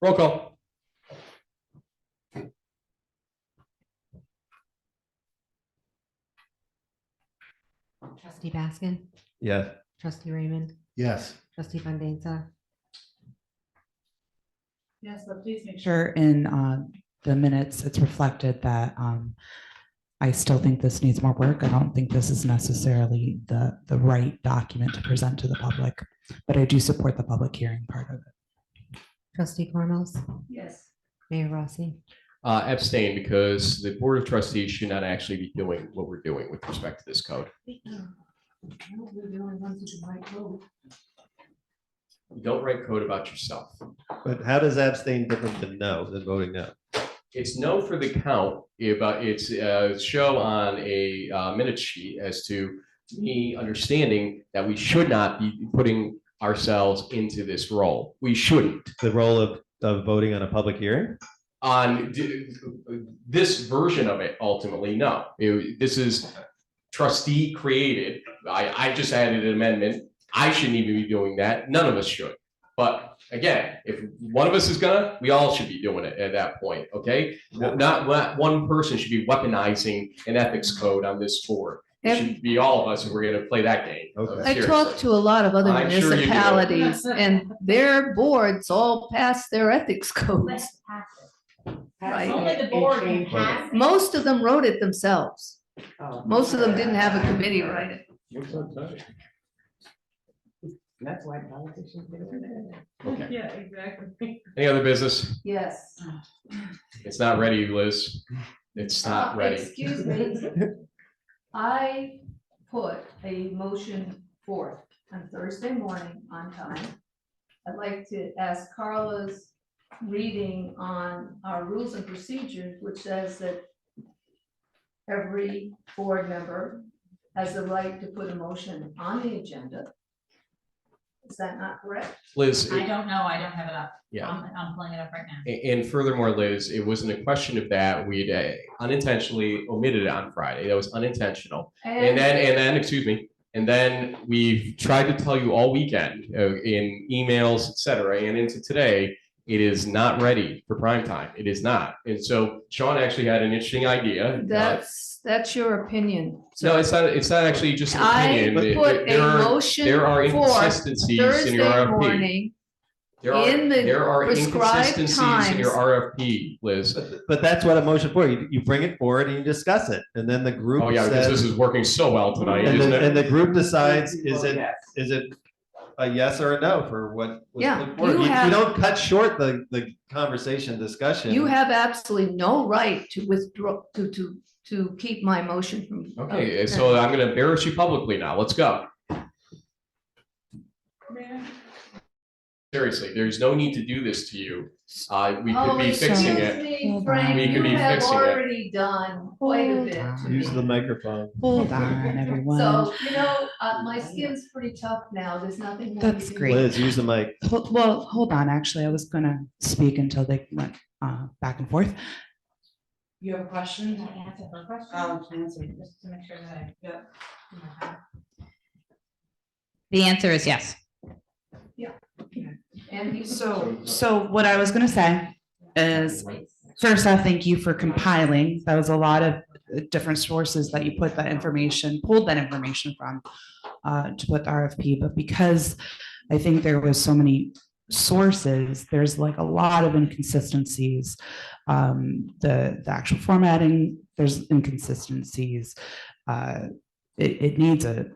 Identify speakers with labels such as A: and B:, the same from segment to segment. A: Roll call.
B: Trustee Baskin,
A: Yes.
B: trustee Raymond,
C: Yes.
B: trustee Fandesa,
D: Yes, but please make
E: Sure,
D: sure.
E: in uh, the minutes, it's reflected that um, I still think this needs more work. I don't think this is necessarily the, the right document to present to the public, but I do support the public hearing part of it.
B: trustee Cormos,
D: Yes,
B: Mayor Rossi,
F: Uh, abstain because the Board of Trustees should not actually be doing what we're doing with respect to this code. You Don't write code about yourself.
A: But how does abstain different than no, than voting no?
F: It's no for the count, eh, but it's, uh, show on a, uh, minute sheet as to me understanding that we should not be putting ourselves into this role. We shouldn't.
A: The role of, of voting on a public hearing?
F: on d- this version of it ultimately, no. It- This is trustee created. I, I just added an amendment. I shouldn't even be doing that. None of us should. But again, if one of us is gonna, we all should be doing it at that point, okay? Not, not one person should be weaponizing an ethics code on this board. It
G: I've
F: should be all of us if we're gonna play that game.
A: Okay.
G: I've talked to a lot of other
F: I'm sure you do.
G: municipalities and their boards all pass their ethics codes.
D: let's pass it.
G: Right.
D: Only the board can pass. it.
G: Most of them wrote it themselves.
H: Oh.
G: Most of them didn't have a committee write it.
H: That's why politicians. do it.
F: Okay.
D: Yeah, exactly.
F: Any other business?
G: Yes.
F: It's not ready, Liz. It's not
G: Uh,
F: ready.
G: Excuse me. I put a motion forth on Thursday morning on time. I'd like to ask Carla's reading on our rules and procedures, which says that every board member has the right to put a motion on the agenda. Is that not correct?
F: Liz,
D: I don't know. I don't have it up.
F: Yeah.
D: I'm, I'm pulling it up right now.
F: A- And furthermore, Liz, it wasn't a question of that. We'd uh, unintentionally omitted it on Friday. That was unintentional. And then, and then, excuse me, and then we've tried to tell you all weekend uh, in emails, et cetera, and into today, it is not ready for prime time. It is not. And so Sean actually had an interesting idea. Uh,
G: That's, that's your opinion.
F: No, it's not, it's not actually just an
G: I
F: opinion. There-
G: put a
F: there are-
G: motion
F: There are
G: forth
F: inconsistencies in your
G: Thursday
F: RFP.
G: morning
F: There are,
G: in the
F: there are
G: prescribed
F: inconsistencies in your
G: times.
F: RFP, Liz.
A: But but that's what a motion for, you, you bring it forward and you discuss it, and then the group
F: Oh, yeah, because this
A: says.
F: is working so well tonight,
A: And
F: isn't
A: the, and
F: it?
A: the group decides, is
H: Well,
A: it,
H: yes.
A: is it a yes or a no for what? was
G: Yeah,
A: put forward?
G: you
A: You you
G: have-
A: don't cut short the, the conversation discussion.
G: You have absolutely no right to withdraw, to, to, to keep my motion from.
F: Okay, so I'm gonna embarrass you publicly now. Let's go. Seriously, there's no need to do this to you. Uh, we could be fixing it.
G: Oh, Excuse me, Frank,
F: We could
G: you
F: be
G: have
F: fixing it.
G: already done quite a bit to
A: Use
G: me.
A: the microphone.
E: Hold on, everyone.
G: So, you know, uh, my skin's pretty tough now. There's nothing. more you
E: That's
G: can-
E: great.
A: Liz, use the mic.
E: Hol- Well, hold on, actually, I was gonna speak until they went uh, back and forth.
H: You have a
D: Can
H: question?
D: I answer her question?
H: Um, can I answer?
D: Just to make sure that I.
H: Yeah.
B: The answer is yes.
G: And you.
E: So, so what I was gonna say is, first off, thank you for compiling. That was a lot of uh, different sources that you put that information, pulled that information from uh, to put the RFP, but because I think there was so many sources, there's like a lot of inconsistencies. Um, the, the actual formatting, there's inconsistencies. Uh, it, it needs a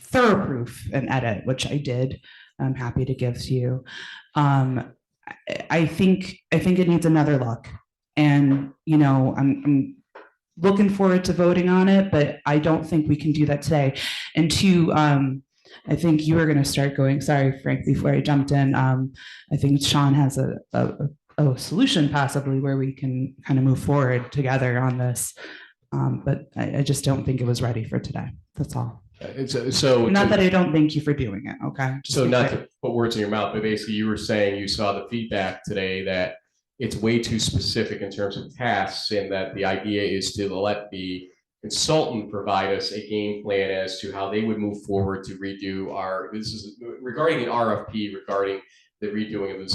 E: thorough proof and edit, which I did. I'm happy to give to you um I, I think i think it needs another look and you know i'm i'm looking forward to voting on it but i don't think we can do that today and two um i think you were going to start going sorry frank before i jumped in um i think sean has a, a a solution possibly where we can kind of move forward together on this um but i, I just don't think it was ready for today that's all
F: It's, uh, so.
E: not that i don't thank you for doing it okay Just
F: So
E: be
F: not
E: clear.
F: to put words in your mouth, but basically you were saying you saw the feedback today that it's way too specific in terms of tasks and that the idea is to let the consultant provide us a game plan as to how they would move forward to redo our, this is regarding an RFP regarding the redoing of this